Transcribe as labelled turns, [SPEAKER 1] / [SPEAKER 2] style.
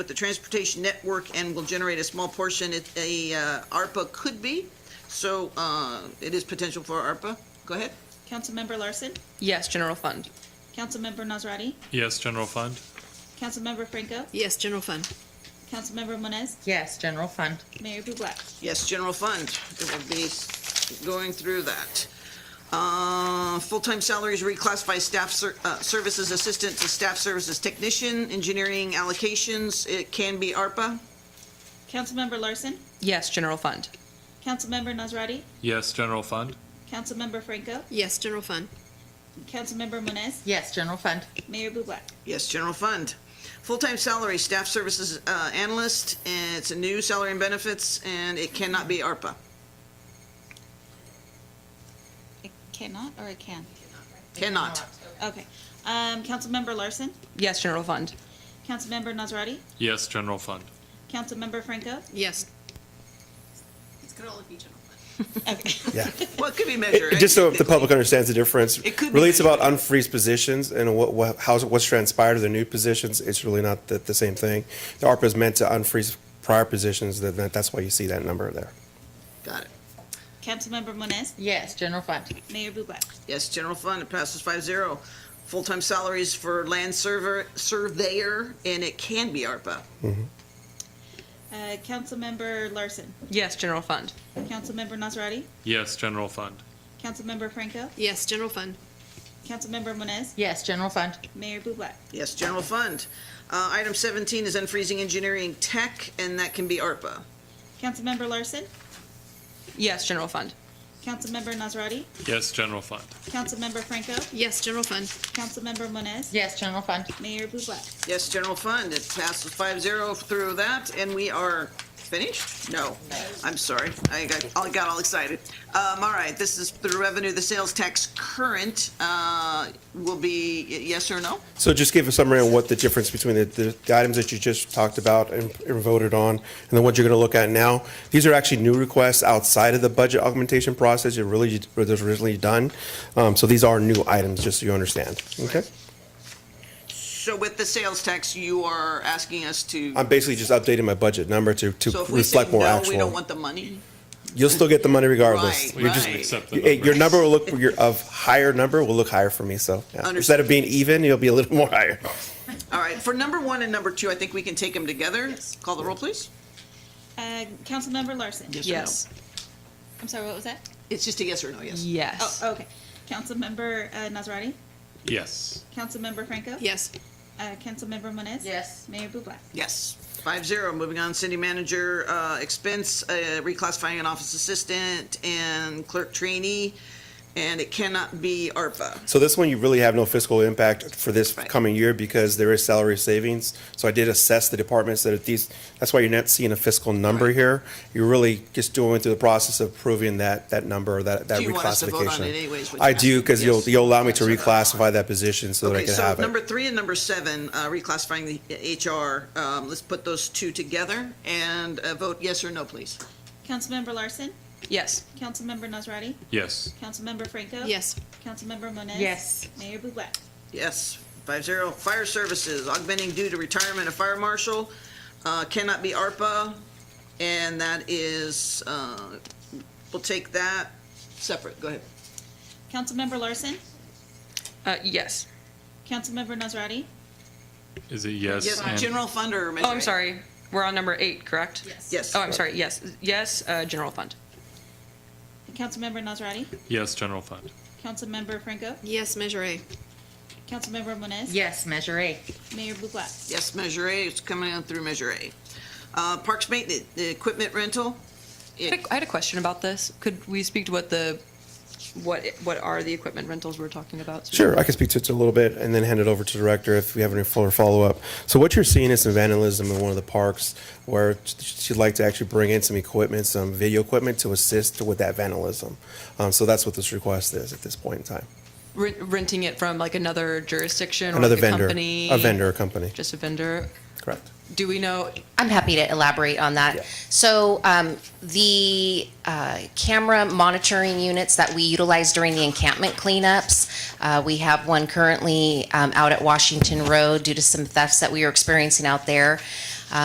[SPEAKER 1] with the transportation network and will generate a small portion. It, a, uh, ARPA could be, so, uh, it is potential for ARPA. Go ahead.
[SPEAKER 2] Councilmember Larson,
[SPEAKER 3] Yes, general fund.
[SPEAKER 2] Councilmember Nazrati,
[SPEAKER 4] Yes, general fund.
[SPEAKER 2] Councilmember Franco,
[SPEAKER 5] Yes, general fund.
[SPEAKER 2] Councilmember Moniz,
[SPEAKER 6] Yes, general fund.
[SPEAKER 2] Mayor Bublak.
[SPEAKER 1] Yes, general fund. It will be going through that. Uh, Full-time salaries reclassify staff ser- uh, services assistant to staff services technician, engineering allocations. It can be ARPA.
[SPEAKER 2] Councilmember Larson,
[SPEAKER 3] Yes, general fund.
[SPEAKER 2] Councilmember Nazrati,
[SPEAKER 4] Yes, general fund.
[SPEAKER 2] Councilmember Franco,
[SPEAKER 5] Yes, general fund.
[SPEAKER 2] Councilmember Moniz,
[SPEAKER 6] Yes, general fund.
[SPEAKER 2] Mayor Bublak.
[SPEAKER 1] Yes, general fund. Full-time salary staff services uh, analyst, and it's a new salary and benefits, and it cannot be ARPA.
[SPEAKER 2] It cannot or it can?
[SPEAKER 1] Cannot.
[SPEAKER 2] Okay. Um, Councilmember Larson,
[SPEAKER 3] Yes, general fund.
[SPEAKER 2] Councilmember Nazrati,
[SPEAKER 4] Yes, general fund.
[SPEAKER 2] Councilmember Franco.
[SPEAKER 5] Yes.
[SPEAKER 2] Okay.
[SPEAKER 7] Yeah.
[SPEAKER 1] Well, it could be measured.
[SPEAKER 7] Just so if the public understands the difference,
[SPEAKER 1] It could be
[SPEAKER 7] really it's about
[SPEAKER 1] measured.
[SPEAKER 7] unfreeze positions and what, what, how's, what's transpired of the new positions. It's really not the, the same thing. The ARPA is meant to unfreeze prior positions, that, that- that's why you see that number there.
[SPEAKER 1] Got it.
[SPEAKER 2] Councilmember Moniz,
[SPEAKER 6] Yes, general fund.
[SPEAKER 2] Mayor Bublak.
[SPEAKER 1] Yes, general fund, it passes five zero. Full-time salaries for land server, surveyor, and it can be ARPA.
[SPEAKER 2] Uh, Councilmember Larson,
[SPEAKER 3] Yes, general fund.
[SPEAKER 2] Councilmember Nazrati,
[SPEAKER 4] Yes, general fund.
[SPEAKER 2] Councilmember Franco,
[SPEAKER 5] Yes, general fund.
[SPEAKER 2] Councilmember Moniz,
[SPEAKER 6] Yes, general fund.
[SPEAKER 2] Mayor Bublak.
[SPEAKER 1] Yes, general fund. Uh, item seventeen is unfreezing engineering tech, and that can be ARPA.
[SPEAKER 2] Councilmember Larson,
[SPEAKER 3] Yes, general fund.
[SPEAKER 2] Councilmember Nazrati,
[SPEAKER 4] Yes, general fund.
[SPEAKER 2] Councilmember Franco,
[SPEAKER 5] Yes, general fund.
[SPEAKER 2] Councilmember Moniz,
[SPEAKER 6] Yes, general fund.
[SPEAKER 2] Mayor Bublak.
[SPEAKER 1] Yes, general fund, it passes five zero through that, and we are finished? No, I'm sorry, I got, I got all excited. Um, all right, this is the revenue, the sales tax current, uh, will be y- yes or no?
[SPEAKER 7] So just give a summary on what the difference between the, the the items that you just talked about and and voted on, and the ones you're going to look at now. These are actually new requests outside of the budget augmentation process, it really, it was originally done. Um, So these are new items, just so you understand, okay?
[SPEAKER 1] So with the sales tax, you are asking us to,
[SPEAKER 7] I'm basically just updating my budget number to,
[SPEAKER 1] so
[SPEAKER 7] to
[SPEAKER 1] if we say
[SPEAKER 7] reflect more
[SPEAKER 1] no, we don't
[SPEAKER 7] actual.
[SPEAKER 1] want the money?
[SPEAKER 7] You'll still get the money regardless.
[SPEAKER 1] Right,
[SPEAKER 4] We
[SPEAKER 7] You're just-
[SPEAKER 4] just accept the
[SPEAKER 7] Hey,
[SPEAKER 4] number.
[SPEAKER 7] Your number will look, your, of higher number will look higher for me, so. yeah.
[SPEAKER 1] Understood.
[SPEAKER 7] Instead of being even, you'll be a little more higher.
[SPEAKER 1] All right, for number one and number two, I think we can take them together. Call the roll, please.
[SPEAKER 2] Uh, Councilmember Larson.
[SPEAKER 1] Yes.
[SPEAKER 3] Yes.
[SPEAKER 2] I'm sorry, what was that?
[SPEAKER 1] It's just a yes or no, yes.
[SPEAKER 2] Oh,
[SPEAKER 3] Yes.
[SPEAKER 2] okay. Councilmember uh, Nazrati,
[SPEAKER 4] Yes.
[SPEAKER 2] Councilmember Franco.
[SPEAKER 5] Yes.
[SPEAKER 2] Uh, Councilmember Moniz.
[SPEAKER 6] Yes.
[SPEAKER 2] Mayor Bublak.
[SPEAKER 1] Yes. Five zero, moving on, city manager, uh, expense, uh, reclassifying an office assistant and clerk trainee, and it cannot be ARPA.
[SPEAKER 7] So this one, you really have no fiscal impact for this
[SPEAKER 1] Right.
[SPEAKER 7] coming year because there is salary savings. So I did assess the departments that are these, that's why you're not seeing a fiscal number here. You're really just doing through the process of proving that, that number, that, that
[SPEAKER 1] Do you want us to vote on it
[SPEAKER 7] reclassification.
[SPEAKER 1] anyways? which
[SPEAKER 7] I
[SPEAKER 1] you
[SPEAKER 7] do,
[SPEAKER 1] asked?
[SPEAKER 7] because you'll,
[SPEAKER 1] Yes.
[SPEAKER 7] you'll allow me to
[SPEAKER 1] So-
[SPEAKER 7] reclassify that position so that I
[SPEAKER 1] Okay,
[SPEAKER 7] can
[SPEAKER 1] so
[SPEAKER 7] have it.
[SPEAKER 1] number three and number seven, uh, reclassifying the HR, um, let's put those two together and uh, vote yes or no, please.
[SPEAKER 2] Councilmember Larson,
[SPEAKER 3] Yes.
[SPEAKER 2] Councilmember Nazrati,
[SPEAKER 4] Yes.
[SPEAKER 2] Councilmember Franco.
[SPEAKER 5] Yes.
[SPEAKER 2] Councilmember Moniz.
[SPEAKER 6] Yes.
[SPEAKER 2] Mayor Bublak.
[SPEAKER 1] Yes, five zero. Fire services, augmenting due to retirement of fire marshal, uh, cannot be ARPA, and that is, uh, we'll take that separate, go ahead.
[SPEAKER 2] Councilmember Larson,
[SPEAKER 3] Uh, yes.
[SPEAKER 2] Councilmember Nazrati,
[SPEAKER 4] Is it yes?
[SPEAKER 1] Yes,
[SPEAKER 4] and-
[SPEAKER 1] general fund or measure
[SPEAKER 3] Oh, I'm
[SPEAKER 1] A?
[SPEAKER 3] sorry. We're on number eight, correct? Yes.
[SPEAKER 1] Yes,
[SPEAKER 3] Oh, I'm sorry. Yes. Yes, uh, general fund.
[SPEAKER 2] Councilmember Nazrati,
[SPEAKER 4] Yes, general fund.
[SPEAKER 2] Councilmember Franco,
[SPEAKER 5] Yes, measure A.
[SPEAKER 2] Councilmember Moniz.
[SPEAKER 6] Yes, measure A.
[SPEAKER 2] Mayor Bublak.
[SPEAKER 1] yes, measure A, it's coming on through measure A. Uh, Parks maintenance, the equipment rental,
[SPEAKER 3] I had a- I had a question about this. Could we speak to what the, what, what are the equipment rentals we're talking about?
[SPEAKER 7] Sure, I can speak to it a little bit and then hand it over to the director if we have any fuller follow-up. So what you're seeing is some vandalism in one of the parks where she'd like to actually bring in some equipment, some video equipment to assist with that vandalism. Um, so that's what this request is at this point in time.
[SPEAKER 3] Rent- Renting it from like another jurisdiction or
[SPEAKER 7] Another
[SPEAKER 3] like a
[SPEAKER 7] vendor,
[SPEAKER 3] company?
[SPEAKER 7] a vendor, a company,
[SPEAKER 3] Just a vendor?
[SPEAKER 7] correct.
[SPEAKER 3] Do we know,
[SPEAKER 8] I'm happy to elaborate on
[SPEAKER 7] Yeah.
[SPEAKER 8] that. So um, the uh, camera monitoring units that we utilize during the encampment cleanups, uh, we have one currently um, out at Washington Road due to some thefts that we are experiencing out there.